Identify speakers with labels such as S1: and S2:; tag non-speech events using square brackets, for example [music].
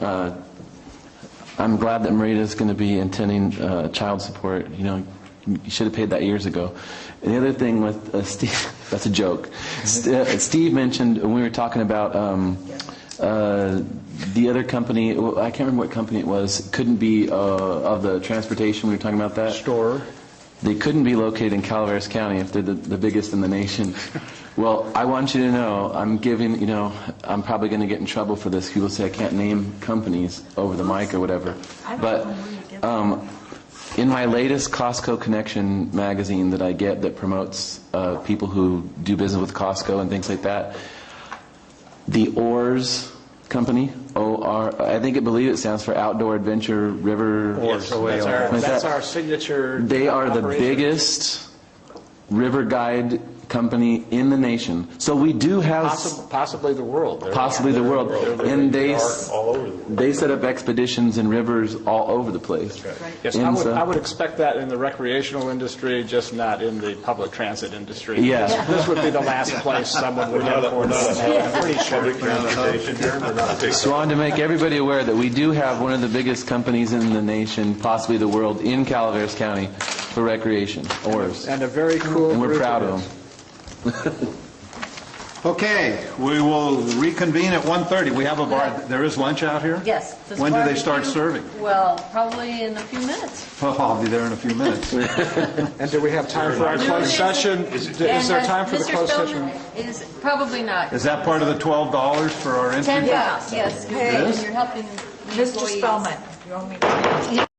S1: uh, I'm glad that Marita's going to be intending uh, child support. You know, you should have paid that years ago. And the other thing with uh, Steve, [laughs] that's a joke. St- uh, Steve mentioned when we were talking about um, uh, the other company. well, I can't remember what company it was. Couldn't be uh, of the transportation. We were talking about that
S2: Store.
S1: they couldn't be located in Calaveras County if they're the, the biggest in the nation. Well, I want you to know, I'm giving, you know, I'm probably going to get in trouble for this. People say I can't name companies over the mic or whatever. But um, in my latest Costco Connection magazine that I get that promotes uh, people who do business with Costco and things like that, the Oars Company, O-R, I think it, believe it stands for Outdoor Adventure River.
S2: Yes, that's our,
S1: Is
S2: that's
S1: that-
S2: our signature.
S1: They are the
S2: operation.
S1: biggest river guide company in the nation. So we do have s-
S2: Possibly, possibly the world. They're-
S1: possibly the world. And they,
S3: are
S1: s-
S3: all over the world.
S1: they set up expeditions in rivers all over the place.
S2: Yes, I
S1: And
S2: would,
S1: so-
S2: I would expect that in the recreational industry, just not in the public transit industry.
S1: Yeah.
S2: This- This would be the last place someone would have for that. I'm pretty sure.
S3: Public transportation here, we're not a big-
S1: So I wanted to make everybody aware that we do have one of the biggest companies in the nation, possibly the world, in Calaveras County for recreation, oars.
S2: And a very cool
S1: And
S2: group.
S1: we're proud of them.
S4: Okay, we will reconvene at 1:30. We have a bar, there is lunch out here?
S5: Yes. this
S4: When do they
S5: barbecue-
S4: start serving?
S5: Well, probably in a few minutes.
S4: Oh, [laughs] I'll be there in a few minutes.
S2: And do we have time for our closed session? Is is there
S5: And, uh,
S2: time for the closed session?
S5: Mr. Spelman is, probably not.
S4: Is that part of the $12 for our entry?
S5: Ten bucks, yes. You're-
S6: Hey.
S5: You're helping the
S6: Mr.
S5: employees.
S6: Spellman, you owe me.